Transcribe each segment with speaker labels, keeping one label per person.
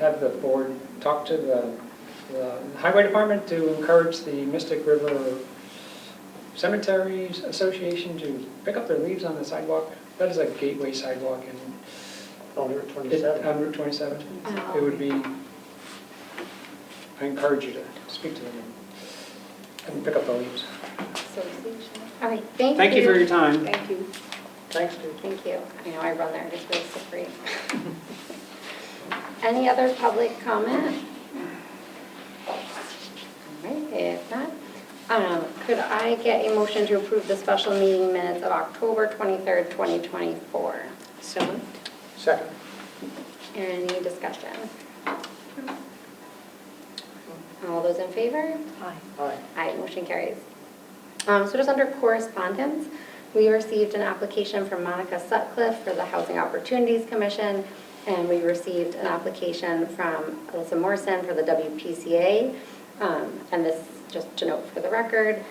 Speaker 1: have the board talk to the the highway department to encourage the Mystic River Cemeteries Association to pick up their leaves on the sidewalk. That is a gateway sidewalk in,
Speaker 2: on Route
Speaker 1: it- um,
Speaker 2: 27.
Speaker 1: on Route 27. It would be, I encourage you to speak to them and pick up the leaves.
Speaker 3: All right, thank you.
Speaker 4: Thank you for your time.
Speaker 3: Thank you.
Speaker 2: Thanks, Steve.
Speaker 3: Thank you. I know I run there just waste for free. Any other public comment? All right, if not, um, could I get a motion to approve the special meeting minutes of October 23rd, 2024?
Speaker 5: So moved.
Speaker 2: Second.
Speaker 3: Any discussion? All those in favor?
Speaker 5: Hi.
Speaker 2: Aye.
Speaker 3: Aye, motion carries. Um, So just under correspondence, we received an application from Monica Sutcliffe for the Housing Opportunities Commission, and we received an application from Alyssa Morrison for the WPCA. Um, And this, just to note for the record,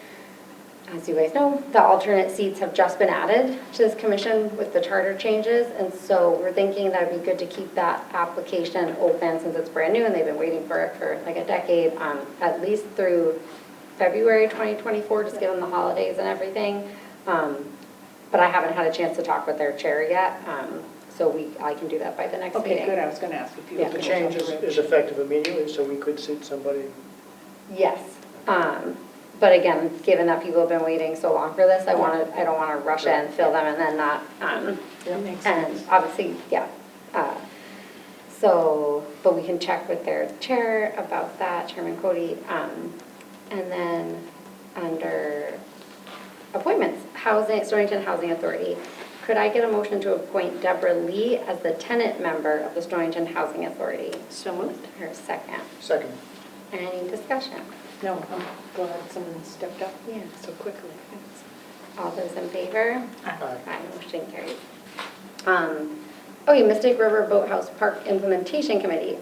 Speaker 3: as you guys know, the alternate seats have just been added to this commission with the charter changes, and so we're thinking that it'd be good to keep that application open since it's brand new and they've been waiting for it for like a decade, um, at least through February 2024, just given the holidays and everything. Um, But I haven't had a chance to talk with their chair yet, um, so we, I can do that by the next meeting.
Speaker 5: Okay, good, I was going to ask if you.
Speaker 3: Yeah.
Speaker 2: The change is is effective immediately, so we could seat somebody.
Speaker 3: Yes, um, but again, given that people have been waiting so long for this, I want to, I don't want to rush in, fill them, and then not, um,
Speaker 5: That makes
Speaker 3: and
Speaker 5: sense.
Speaker 3: obviously, yeah. uh, So, but we can check with their chair about that, Chairman Cody. um, And then, under appointments, Housing, Stonington Housing Authority, could I get a motion to appoint Deborah Lee as the tenant member of the Stonington Housing Authority?
Speaker 5: So moved.
Speaker 3: Her second.
Speaker 2: Second.
Speaker 3: Any discussion?
Speaker 5: No, I'm glad someone stepped up.
Speaker 3: Yeah.
Speaker 5: So quickly.
Speaker 3: All those in favor?
Speaker 2: Aye.
Speaker 3: Aye, motion carries. Um, Okay, Mystic River Boathouse Park Implementation Committee.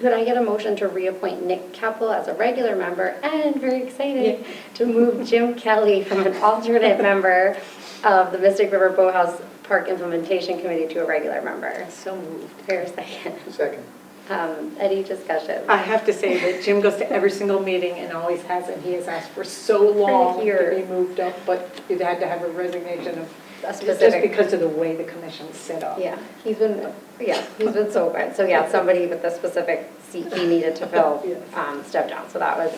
Speaker 3: Could I get a motion to reappoint Nick Keppel as a regular member and, very exciting, to move Jim Kelly from an alternate member of the Mystic River Boathouse Park Implementation Committee to a regular member?
Speaker 5: So moved.
Speaker 3: Fair second.
Speaker 2: Second.
Speaker 3: Um, Any discussion?
Speaker 5: I have to say that Jim goes to every single meeting and always has it. He has asked for so long
Speaker 3: year.
Speaker 5: to be moved up, but you had to have a resignation of,
Speaker 3: A
Speaker 5: just
Speaker 3: specific-
Speaker 5: because of the way the commission's set up.
Speaker 3: Yeah, he's been, yeah, he's been so good. So yeah, somebody with the specific seat he needed to fill
Speaker 5: Yes.
Speaker 3: um, stepped down, so that was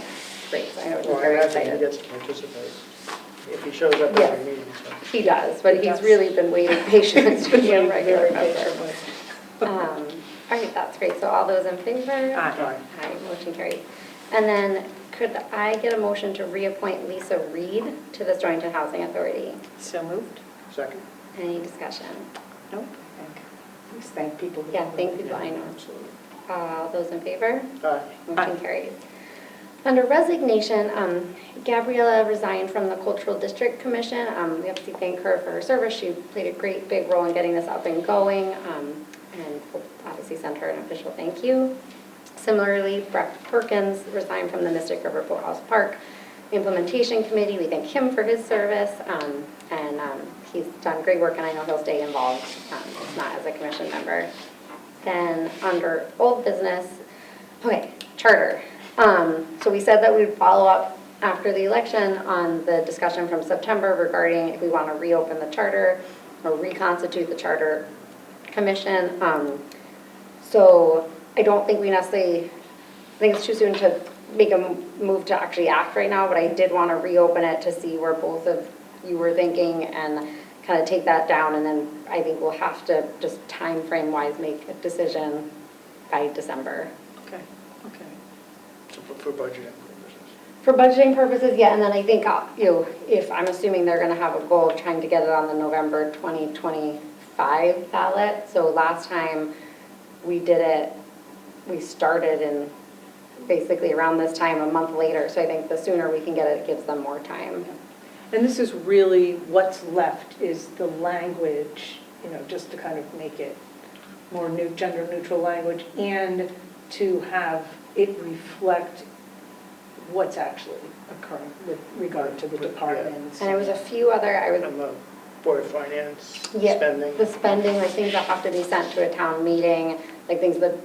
Speaker 3: great. I
Speaker 2: Well,
Speaker 3: know he's
Speaker 2: I
Speaker 3: very
Speaker 2: imagine he
Speaker 3: excited.
Speaker 2: gets to participate if he shows up at every meeting, so.
Speaker 3: He does, but he's
Speaker 5: Yes.
Speaker 3: really been waiting patiently to be a regular member.
Speaker 5: Very patient.
Speaker 3: Um, All right, that's great. So all those in favor?
Speaker 5: Aye.
Speaker 3: Aye, motion carried. And then could I get a motion to reappoint Lisa Reed to the Stonington Housing Authority?
Speaker 5: So moved.
Speaker 2: Second.
Speaker 3: Any discussion?
Speaker 5: Nope. Thank- Please thank people. who-
Speaker 3: Yeah, thank you, I know. All those in favor?
Speaker 2: Aye.
Speaker 3: Motion carries. Under resignation, um, Gabriella resigned from the Cultural District Commission. Um, We have to thank her for her service. She played a great big role in getting this up and going, um, and we'll obviously send her an official thank you. Similarly, Brett Perkins resigned from the Mystic River Boathouse Park Implementation Committee. We thank him for his service, um, and um, he's done great work, and I know he'll stay involved, um, if not as a commission member. Then, under old business, Okay, charter. Um, So we said that we'd follow up after the election on the discussion from September regarding if we want to reopen the charter or reconstitute the charter commission. Um, So I don't think we necessarily, I think it's too soon to make a m- move to actually act right now, but I did want to reopen it to see where both of you were thinking and kind of take that down, and then I think we'll have to, just time frame wise, make a decision by December.
Speaker 5: Okay, okay.
Speaker 2: So For for budgeting purposes.
Speaker 3: For budgeting purposes, yeah, and then I think, uh, you know, if, I'm assuming they're gonna have a goal of trying to get it on the November 2025 ballot. So last time we did it, we started in basically around this time, a month later. So I think the sooner we can get it, it gives them more time.
Speaker 5: And this is really what's left is the language, you know, just to kind of make it more new, gender neutral language and to have it reflect what's actually occurring with regard to the
Speaker 2: Yeah.
Speaker 5: departments.
Speaker 3: And there was a few other, I
Speaker 2: And
Speaker 3: would,
Speaker 2: the Board of Finance
Speaker 3: yeah,
Speaker 2: spending.
Speaker 3: the spending, like things that have to be sent to a town meeting, like things that